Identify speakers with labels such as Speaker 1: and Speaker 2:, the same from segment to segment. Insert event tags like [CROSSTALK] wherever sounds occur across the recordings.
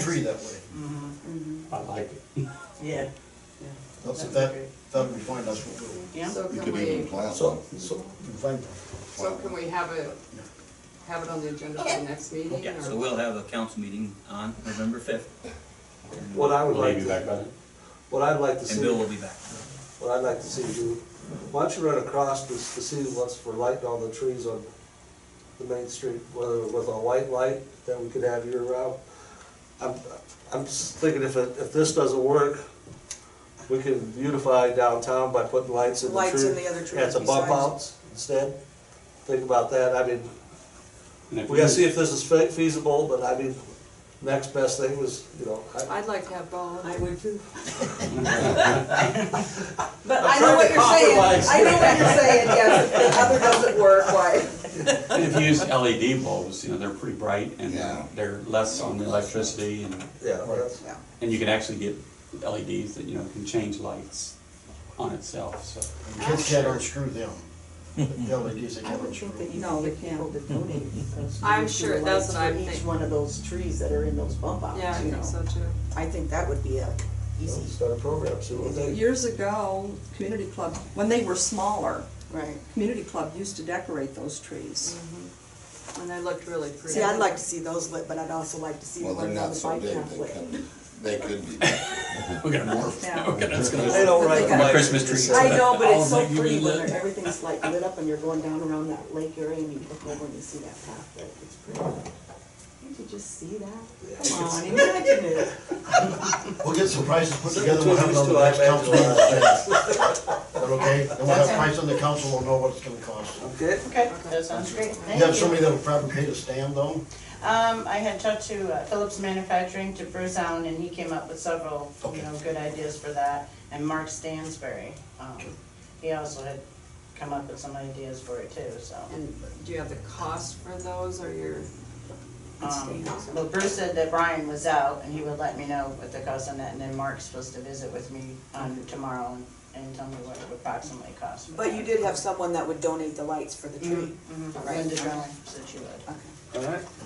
Speaker 1: tree that way.
Speaker 2: I like it.
Speaker 3: Yeah.
Speaker 1: That's, that, that would find us what we
Speaker 3: Yeah,
Speaker 4: So
Speaker 5: You
Speaker 4: can
Speaker 5: could even
Speaker 4: we,
Speaker 5: plant
Speaker 2: So,
Speaker 5: one.
Speaker 2: so,
Speaker 1: can find.
Speaker 4: so can we have it, have it on the agenda for the next meeting?
Speaker 6: Yeah,
Speaker 4: or-
Speaker 6: so we'll have a council meeting on November fifth,
Speaker 7: What I would like,
Speaker 2: maybe
Speaker 7: to-
Speaker 2: back on it.
Speaker 7: what I'd like to
Speaker 6: and
Speaker 7: see,
Speaker 6: Bill will be back.
Speaker 7: what I'd like to see do, why don't you run across this, to see what's for lighting all the trees on the main street, whether with a white light that we could have year round. I'm, I'm just thinking if, it- if this doesn't work, we can beautify downtown by putting lights in the tree.
Speaker 8: Lights in the other trees
Speaker 7: Yeah, it's a bump
Speaker 8: besides.
Speaker 7: outs instead. Think about that, I mean,
Speaker 2: And if
Speaker 7: we gotta
Speaker 2: you-
Speaker 7: see if this is fe- feasible, but I mean, next best thing was, you know, I-
Speaker 4: I'd like to have Paul.
Speaker 8: I would too.
Speaker 7: I'm
Speaker 8: But I
Speaker 7: trying
Speaker 8: know
Speaker 7: to
Speaker 8: what you're saying,
Speaker 7: compromise.
Speaker 8: I know what you're saying, yes, if the other doesn't work, why?
Speaker 2: And if you use LED bulbs, you know, they're pretty bright and
Speaker 5: Yeah.
Speaker 2: they're less on the electricity and,
Speaker 7: yeah, that's.
Speaker 8: Yeah.
Speaker 2: and you can actually get LEDs that, you know, can change lights on itself, so.
Speaker 1: Kids can't unscrew them. The LEDs, they
Speaker 3: [LAUGHS] I
Speaker 1: can't
Speaker 3: would think
Speaker 1: unscrew.
Speaker 3: that you
Speaker 8: No,
Speaker 3: need
Speaker 8: they
Speaker 3: the people
Speaker 8: can't.
Speaker 3: to donate those.
Speaker 4: I'm
Speaker 3: trees to
Speaker 4: sure
Speaker 3: the
Speaker 4: that's
Speaker 3: lights
Speaker 4: what I'm
Speaker 3: for Each
Speaker 4: thinking.
Speaker 3: one of those trees that are in those bump outs,
Speaker 4: [LAUGHS] Yeah, I
Speaker 3: you
Speaker 4: think
Speaker 3: know.
Speaker 4: so too.
Speaker 3: I think that would be a easy,
Speaker 7: Start a program, see what they,
Speaker 9: Years ago, community club, when they were smaller,
Speaker 3: right.
Speaker 9: community club used to decorate those trees.
Speaker 8: Mm-hmm.
Speaker 4: And they looked really pretty.
Speaker 8: See, I'd like to see those lit, but I'd also like to see the
Speaker 5: Well, they're
Speaker 8: ones on
Speaker 5: not so
Speaker 8: the bike
Speaker 5: big,
Speaker 8: path
Speaker 5: they
Speaker 8: lit.
Speaker 5: can, they could be.
Speaker 2: We're gonna morph.
Speaker 9: Yeah.
Speaker 2: We're gonna, it's
Speaker 7: they
Speaker 2: gonna,
Speaker 7: don't write.
Speaker 2: my
Speaker 7: like-
Speaker 2: Christmas tree.
Speaker 3: [LAUGHS]
Speaker 7: it's-
Speaker 3: I know, but it's
Speaker 2: All
Speaker 3: so
Speaker 2: of you
Speaker 3: pretty when
Speaker 2: lit.
Speaker 3: they're- everything's like lit up and you're going down around that lake area and you look over and you see that path, that it's pretty. Can't you just see that?
Speaker 5: [LAUGHS]
Speaker 3: Come on, imagine it.
Speaker 1: We'll get some prices put
Speaker 7: Send
Speaker 1: together,
Speaker 7: it
Speaker 1: we'll
Speaker 7: to
Speaker 1: have it
Speaker 7: us
Speaker 1: on
Speaker 7: to
Speaker 1: the next
Speaker 7: iPad
Speaker 1: council. meeting. Is that okay? Then we'll have price on the council, we'll know what it's gonna cost.
Speaker 7: Okay,
Speaker 10: Okay, that sounds great, thank
Speaker 1: You have somebody that'll probably pay to stand though?
Speaker 10: Um, I had talked to uh, Phillips Manufacturing to Brewsound, and he came up with several, you know, good ideas for that. And Mark Stansberry, um, he also had come up with some ideas for it too, so.
Speaker 4: And do you have the cost for those or your?
Speaker 10: Um, Well, Bruce said that Brian was out, and he would let me know what the cost on that, and then Mark's supposed to visit with me on tomorrow and, and tell me what it would approximately cost. for
Speaker 8: But
Speaker 10: that.
Speaker 8: you did have someone that would donate the lights for the tree.
Speaker 9: Mm-hmm.
Speaker 10: Mhm,
Speaker 8: Right.
Speaker 10: Linda Drummond said she would.
Speaker 7: all right.
Speaker 2: I think- I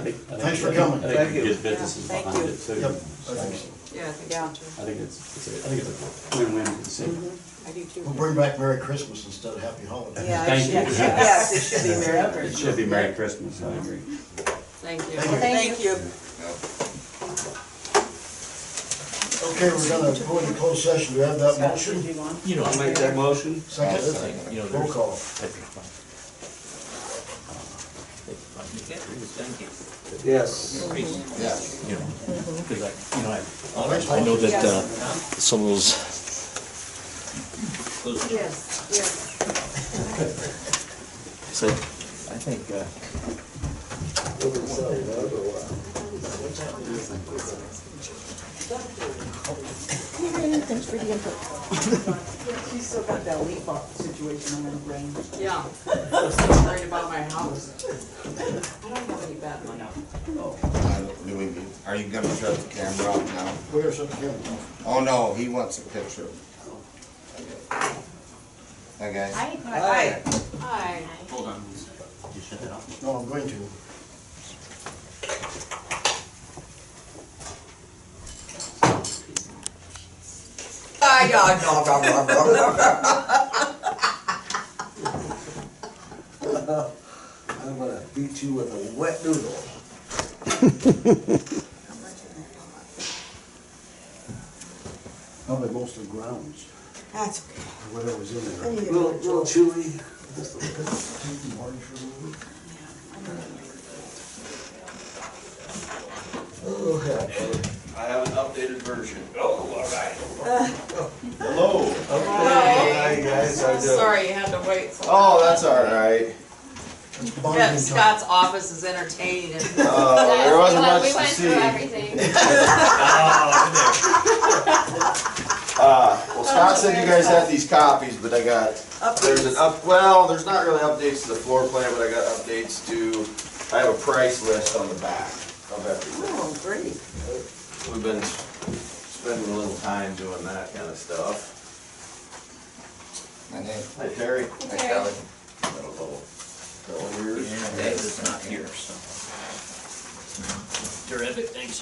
Speaker 2: think-
Speaker 1: Thanks for coming.
Speaker 2: I think
Speaker 7: Thank
Speaker 2: we
Speaker 7: you.
Speaker 2: can get businesses
Speaker 8: Yeah, thank
Speaker 2: behind
Speaker 8: you.
Speaker 2: it too.
Speaker 1: Yep, I
Speaker 2: So,
Speaker 1: think so.
Speaker 4: Yeah, I think
Speaker 8: Yeah.
Speaker 4: so too.
Speaker 2: I think it's, it's a, I think it's a win-win for the city.
Speaker 8: I do too.
Speaker 1: We'll bring back Merry Christmas instead of Happy Holidays.
Speaker 8: Yeah, it
Speaker 2: Thank
Speaker 8: should,
Speaker 2: you.
Speaker 8: yes, it should
Speaker 2: [LAUGHS]
Speaker 8: be Merry Christmas.
Speaker 2: It should be Merry Christmas, I agree.
Speaker 4: Thank you.
Speaker 1: Thank you.
Speaker 8: Thank you.
Speaker 1: Okay, we're gonna go into closed session, do we have that Uh, motion?
Speaker 6: You know,
Speaker 7: I'll make that motion.
Speaker 1: Second,
Speaker 6: you know,
Speaker 1: roll
Speaker 6: there's.
Speaker 1: call.
Speaker 6: Thank you.
Speaker 7: Yes.
Speaker 5: Yeah.
Speaker 6: You know, 'cause I, you know, I, all
Speaker 1: Thanks,
Speaker 6: those-
Speaker 1: Paul.
Speaker 11: I know that uh,
Speaker 8: Yes.
Speaker 11: some of those
Speaker 6: those
Speaker 8: Yes, yes.
Speaker 11: So I think, uh,
Speaker 3: Thanks for the [LAUGHS] input. She's still got that leaf off situation on her brain.
Speaker 4: Yeah. I'm so worried about my house. I don't have any bad money.
Speaker 5: I don't- Do we, are you gonna shut the camera off now?
Speaker 1: Where's the camera?
Speaker 5: Oh, no, he wants a picture. Okay.
Speaker 8: Hi.
Speaker 4: Hi.
Speaker 6: Hold on, please. Just shut that off.
Speaker 1: No, I'm going to.
Speaker 8: Hi, dog, dog, dog, dog, dog, dog.
Speaker 7: I'm gonna beat you with a wet noodle.
Speaker 1: Probably most of the grounds,
Speaker 8: That's okay.
Speaker 1: or whatever was in there.
Speaker 8: I need a
Speaker 7: Little,
Speaker 8: little
Speaker 7: little chewy.
Speaker 5: I have an updated version.
Speaker 7: Hi, guys, how you doing?
Speaker 4: Sorry you had to wait so long.
Speaker 5: Oh, that's all right.
Speaker 1: It's
Speaker 4: Yeah,
Speaker 1: bonding time.
Speaker 4: Scott's office is entertaining and
Speaker 5: Uh, there wasn't
Speaker 12: Well,
Speaker 5: much to
Speaker 12: We
Speaker 5: see.
Speaker 12: went through everything.
Speaker 5: Uh, well, Scott said you guys had these copies, but I got, there's an up, well, there's not really updates to the floor plan, but I got updates to, I have a price list on the back of everything.
Speaker 3: Oh, great.
Speaker 5: We've been spending a little time doing that kind of stuff. My name. Hi, Terry. Hi, Kelly. Got a little, little weird.
Speaker 6: David's not here, so. Terrific, thanks.